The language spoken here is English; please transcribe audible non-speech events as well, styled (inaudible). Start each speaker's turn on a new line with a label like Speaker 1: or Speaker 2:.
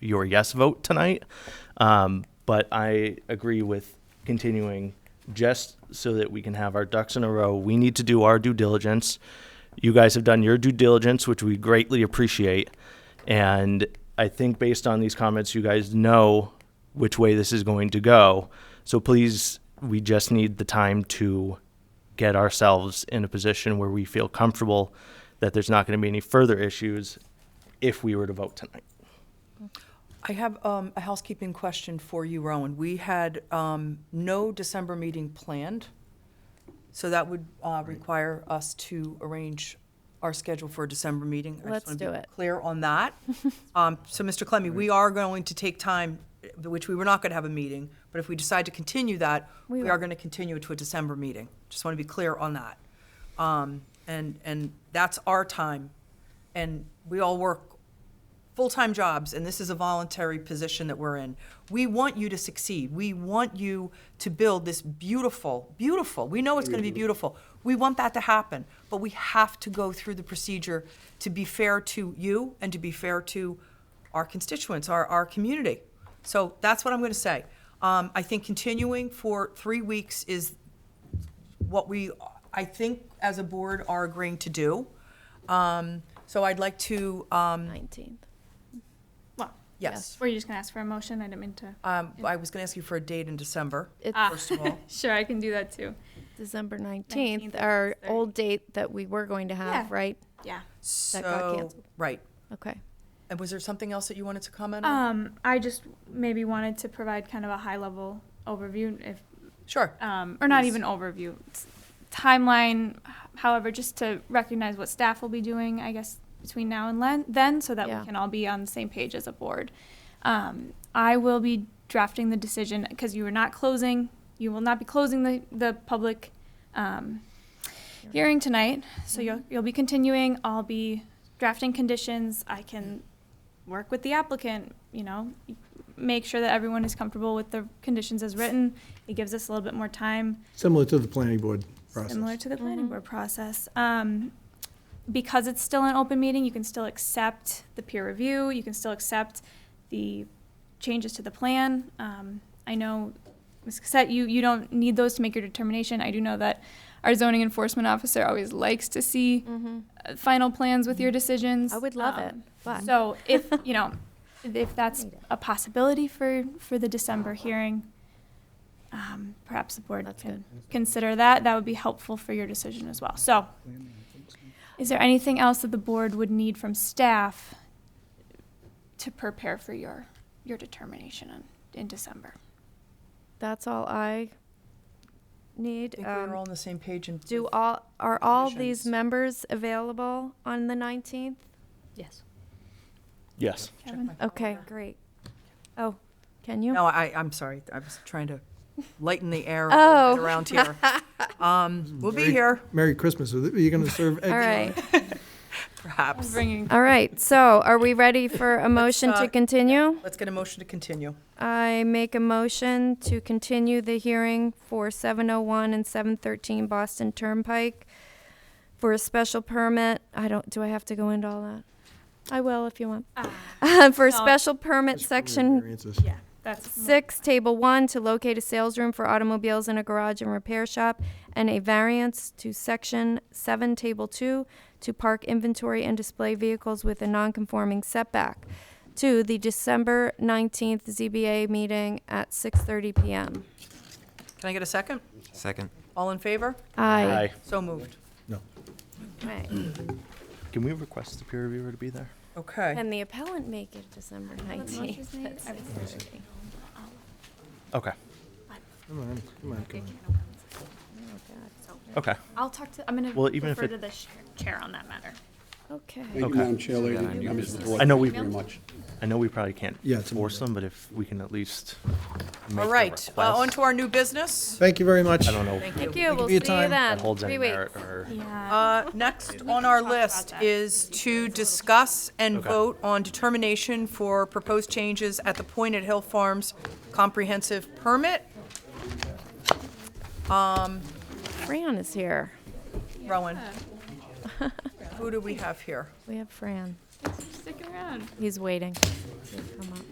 Speaker 1: your yes vote tonight. Um, but I agree with continuing just so that we can have our ducks in a row. We need to do our due diligence. You guys have done your due diligence, which we greatly appreciate. And I think based on these comments, you guys know which way this is going to go. So please, we just need the time to get ourselves in a position where we feel comfortable that there's not going to be any further issues if we were to vote tonight.
Speaker 2: I have um, a housekeeping question for you, Rowan. We had um, no December meeting planned, so that would uh, require us to arrange our schedule for a December meeting. I just
Speaker 3: Let's
Speaker 2: wanna be
Speaker 3: do it.
Speaker 2: Clear on
Speaker 3: (laughs)
Speaker 2: that. Um, So, Mr. Clemmie, we are going to take time, uh, which we were not going to have a meeting, but if we decide to continue that,
Speaker 3: We
Speaker 2: we are
Speaker 3: will.
Speaker 2: going to continue it to a December meeting. Just want to be clear on that. Um, And, and that's our time, and we all work full-time jobs and this is a voluntary position that we're in we want you to succeed we want you to build this beautiful beautiful we know it's going to be beautiful we want that to happen but we have to go through the procedure to be fair to you and to be fair to our constituents our, our community so that's what i'm going to say um, i think continuing for three weeks is what we, I think, as a board are agreeing to do. Um, So I'd like to, um,
Speaker 3: 19th.
Speaker 4: Well,
Speaker 2: yes,
Speaker 4: were you just gonna ask for a motion? I didn't mean to.
Speaker 2: Um, I was going to ask you for a date in December,
Speaker 3: It's
Speaker 2: first
Speaker 3: (laughs)
Speaker 2: of all.
Speaker 4: Sure, I can do that too.
Speaker 3: December 19th,
Speaker 4: 19th,
Speaker 3: our
Speaker 4: that's
Speaker 3: old date that we were going to have,
Speaker 4: Yeah.
Speaker 3: right?
Speaker 4: Yeah.
Speaker 2: So,
Speaker 3: got canceled.
Speaker 2: Right.
Speaker 3: Okay.
Speaker 2: And was there something else that you wanted to comment
Speaker 3: Uh,
Speaker 2: on?
Speaker 4: Um, I just maybe wanted to provide kind of a high level overview if,
Speaker 2: Sure.
Speaker 4: um, or not
Speaker 2: Please.
Speaker 4: even overview, s- timeline, however, just to recognize what staff will be doing, I guess, between now and len- then, so that
Speaker 3: Yeah.
Speaker 4: we can all be on the same page as a board. Um, I will be drafting the decision, because you are not closing, you will not be closing the, the public, um, hearing tonight, so you'll, you'll be continuing, I'll be drafting conditions, I can work with the applicant, you know, make sure that everyone is comfortable with the conditions as written. It gives us a little bit more time,
Speaker 5: Similar to the planning board process.
Speaker 4: similar to the planning board process. Um, because it's still an open meeting, you can still accept the peer review, you can still accept the changes to the plan. Um, I know, Ms. Cassette, you, you don't need those to make your determination. I do know that our zoning enforcement officer always likes to
Speaker 3: Mm-hmm.
Speaker 4: see
Speaker 2: Mm-hmm.
Speaker 4: uh, final plans with your decisions.
Speaker 3: I would love it,
Speaker 4: Um,
Speaker 3: but-
Speaker 4: So (laughs) if, you know, if that's a possibility for, for the December hearing, um, perhaps the board
Speaker 3: That's
Speaker 4: can consider that. That would be helpful for your decision as well. So is there anything else that the board would need from staff to prepare for your, your determination in, in December?
Speaker 3: That's all
Speaker 2: I
Speaker 3: I need.
Speaker 2: think we were
Speaker 3: Um,
Speaker 2: all on the same page and.
Speaker 3: do all are all
Speaker 2: Conditions.
Speaker 3: these members available on the 19th?
Speaker 6: Yes.
Speaker 1: Yes.
Speaker 4: Kevin?
Speaker 3: Okay, great. Oh, can you?
Speaker 2: No, I, I'm sorry. I was trying to lighten the air a
Speaker 3: Oh.
Speaker 2: little bit around
Speaker 3: (laughs)
Speaker 2: here. Um, We'll be here,
Speaker 5: Merry Christmas. Are you going to serve eggs?
Speaker 3: all right.
Speaker 4: I'm
Speaker 2: perhaps.
Speaker 4: bringing
Speaker 3: All right. So, are we ready for a motion
Speaker 2: uh,
Speaker 3: to continue?
Speaker 2: Let's get a motion to continue.
Speaker 3: I make a motion to continue the hearing for 701 and 713 Boston Turnpike for a special permit. I don't, do I have to go into all that? I will if you want. (laughs) For a
Speaker 4: No.
Speaker 3: special permit, section
Speaker 5: Variances.
Speaker 4: Yeah, that's,
Speaker 3: six, table one, to locate a sales room for automobiles in a garage and repair shop, and a variance to section seven, table two, to park inventory and display vehicles with a non-conforming setback. To the December nineteenth ZBA meeting at six thirty PM.
Speaker 2: Can I get a second?
Speaker 7: Second.
Speaker 2: All in favor?
Speaker 3: Aye.
Speaker 2: So moved.
Speaker 5: No.
Speaker 3: Right.
Speaker 1: Can we request the peer reviewer to be there?
Speaker 2: Okay.
Speaker 3: Can the appellant make it December nineteenth?
Speaker 1: Okay.
Speaker 5: Come on, come on, come on.
Speaker 3: Oh,
Speaker 1: Okay.
Speaker 4: I'll talk to, I'm gonna
Speaker 1: Well, even if
Speaker 4: refer
Speaker 1: it-
Speaker 4: to the sh- chair on that matter.
Speaker 3: Okay.
Speaker 8: Thank you,
Speaker 1: Okay.
Speaker 8: Madam Chair, ladies and members of the board.
Speaker 1: I know
Speaker 8: Thank
Speaker 1: we-
Speaker 8: you Very much.
Speaker 1: I know we probably can't
Speaker 5: Yeah, it's a
Speaker 1: force
Speaker 5: Monday.
Speaker 1: them, but if we can at least. make
Speaker 2: All
Speaker 1: the
Speaker 2: right, uh, on
Speaker 1: request.
Speaker 2: to our new business.
Speaker 5: Thank you very much.
Speaker 1: I don't know if
Speaker 3: Thank you. We'll
Speaker 5: for
Speaker 3: see you
Speaker 5: your time.
Speaker 1: that
Speaker 3: then.
Speaker 1: holds any
Speaker 3: Three weeks.
Speaker 1: merit or.
Speaker 4: Yeah.
Speaker 2: Uh, Next on our list is to discuss and
Speaker 1: Okay.
Speaker 2: vote on determination for proposed changes at the Point at Hill Farms comprehensive permit.
Speaker 3: Fran is here.
Speaker 2: Rowan, who do we have here?
Speaker 3: We have Fran.
Speaker 4: Stick around.
Speaker 3: He's waiting. He'll come up.